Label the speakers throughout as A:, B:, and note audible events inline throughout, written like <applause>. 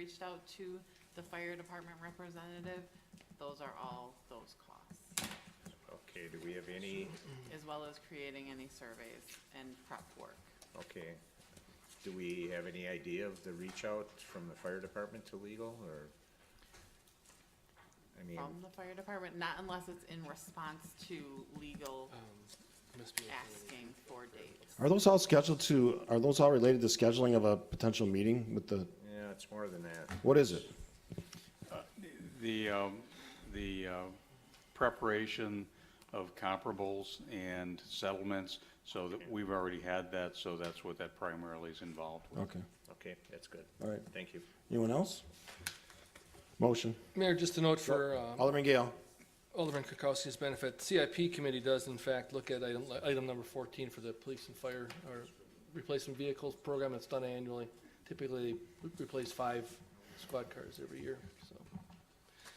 A: reached out to the fire department representative, those are all those costs,
B: Okay, do we have any,
A: as well as creating any surveys and prep work.
B: okay, do we have any idea of the reach out from the fire department to legal, or? I mean,
A: From the fire department, not unless it's in response to legal
C: Must be
A: asking for dates.
D: Are those all scheduled to, are those all related to scheduling of a potential meeting with the,
B: yeah, it's more than that.
D: what is it?
E: The, um, the uh, preparation of comparables and settlements, so that we've already had that, so that's what that primarily is involved with.
D: Okay,
B: Okay, that's good.
D: all right.
B: Thank you.
D: Anyone else? Motion.
C: Mayor, just a note for um,
D: Alderman Gale.
C: Alderman Kirkowski's benefit, CIP committee does in fact look at item, item number fourteen for the police and fire, or replacement vehicles program that's done annually. Typically, we replace five squad cars every year, so.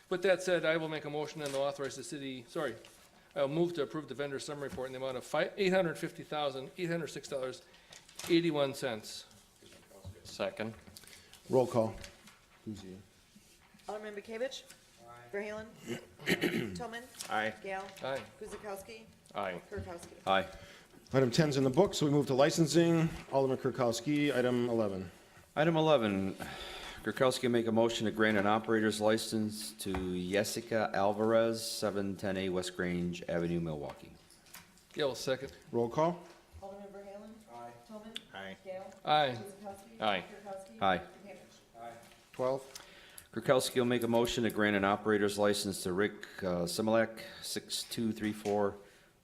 C: With that said, I will make a motion and authorize the city, sorry, I'll move to approve the vendor summary report in the amount of fi eight hundred fifty thousand, eight hundred six dollars, eighty-one cents.
F: Second.
D: Roll call.
G: Alderman Bakovic.
F: <coughs>
G: Verhaelen. Tillman.
B: Aye.
G: Gale.
C: Aye.
G: Guzekowski.
F: Aye.
G: Kirkowski.
F: Aye.
D: Item 10's in the book, so we move to licensing. Alderman Kirkowski, item 11.
F: Item 11, Kirkowski make a motion to grant an operator's license to Jessica Alvarez, 710A West Grange Avenue, Milwaukee.
C: Gale, second.
D: Roll call.
G: Alderman Verhaelen. Aye. Tillman.
B: Aye.
G: Gale.
C: Aye.
G: Guzekowski.
F: Aye.
G: Kirkowski.
F: Aye.
G: Bakovic.
D: 12.
F: Kirkowski will make a motion to grant an operator's license to Rick uh, Similak, 6234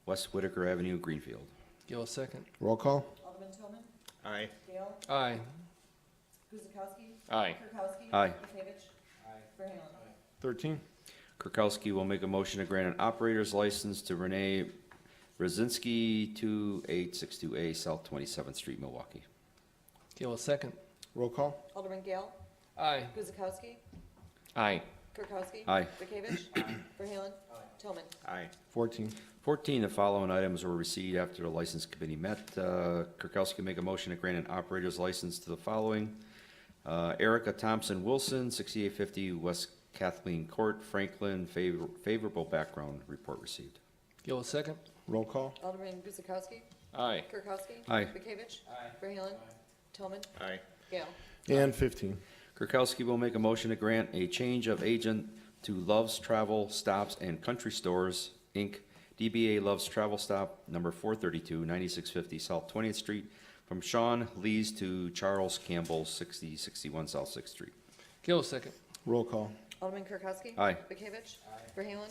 F: West Whitaker Avenue, Greenfield.
C: Gale, second.
D: Roll call.
G: Alderman Tillman.
B: Aye.
G: Gale.
C: Aye.
G: Guzekowski.
F: Aye.
G: Kirkowski.
F: Aye.
G: Bakovic. Aye. Verhaelen.
D: 13.
F: Kirkowski will make a motion to grant an operator's license to Renee Rosinski, 2862A South 27th Street, Milwaukee.
C: Gale, second.
D: Roll call.
G: Alderman Gale.
C: Aye.
G: Guzekowski.
F: Aye.
G: Kirkowski.
F: Aye.
G: Bakovic. Verhaelen. Tillman.
B: Aye.
D: 14.
F: 14, the following items were received after the license committee met. Uh, Kirkowski make a motion to grant an operator's license to the following. Uh, Erica Thompson Wilson, 6850 West Kathleen Court, Franklin, Favor- favorable background report received.
C: Gale, second.
D: Roll call.
G: Alderman Guzekowski.
F: Aye.
G: Kirkowski.
F: Aye.
G: Bakovic. Aye. Verhaelen. Tillman.
B: Aye.
G: Gale.
D: And 15.
F: Kirkowski will make a motion to grant a change of agent to Love's Travel Stops and Country Stores, Inc., DBA Love's Travel Stop, number 432, 9650 South 20th Street, from Sean Lees to Charles Campbell, 6061 South 6th Street.
C: Gale, second.
D: Roll call.
G: Alderman Kirkowski.
F: Aye.
G: Bakovic. Verhaelen.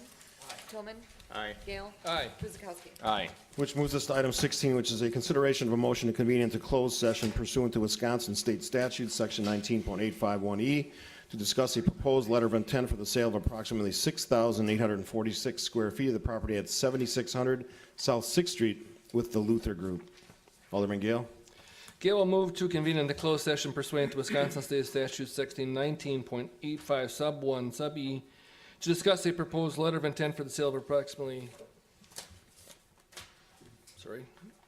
G: Tillman.
B: Aye.
G: Gale.
C: Aye.
G: Guzekowski.
F: Aye.
D: Which moves us to item 16, which is a consideration of a motion to convene into closed session pursuant to Wisconsin State Statute, Section 19.851E, E, to discuss a proposed letter of intent for the sale of approximately 6,846 square feet of the property at 7600 South Sixth Street with the Luther Group. Alderman Gale?
C: Gale will move to convene into closed session pursuant to Wisconsin State Statute section nineteen point eight five sub one sub E to discuss a proposed letter of intent for the sale of approximately, sorry,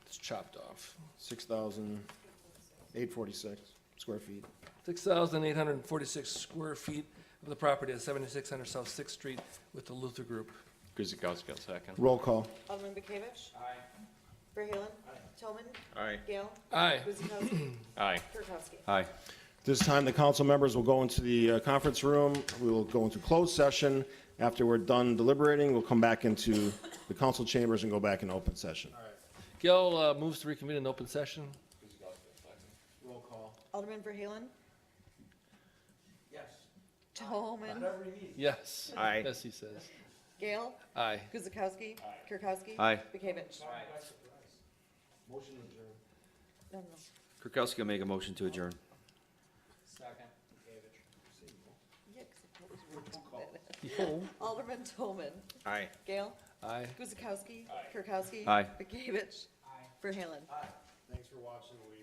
C: it's chopped off,
D: 6,846 square feet.
C: six thousand eight hundred and forty-six square feet of the property at seventy-six hundred South Sixth Street with the Luther Group.
F: Guzekowski, second.
D: Roll call.
G: Alderman Bakovic. Aye. Verhaelen. Tillman.
B: Aye.
G: Gale.
C: Aye.
G: Guzekowski.
F: <clears throat> Aye.
G: Kirkowski.
F: Aye.
D: This time, the council members will go into the uh, conference room. We will go into closed session. After we're done deliberating, we'll come back into the council chambers and go back in open session.
C: Gale uh, moves to reconvene in open session.
G: Alderman Verhaelen. Yes. Tillman.
C: Yes.
B: Aye.
C: Yes, he says.
G: Gale.
C: Aye.
G: Guzekowski. Kirkowski.
F: Aye.
G: Bakovic. No, no.
F: Kirkowski will make a motion to adjourn.
G: Yeah, 'cause I told you to do that. <laughs> Alderman Tillman.
B: Aye.
G: Gale.
C: Aye.
G: Guzekowski. Kirkowski.
F: Aye.
G: Bakovic. Verhaelen.
D: Thanks for watching. We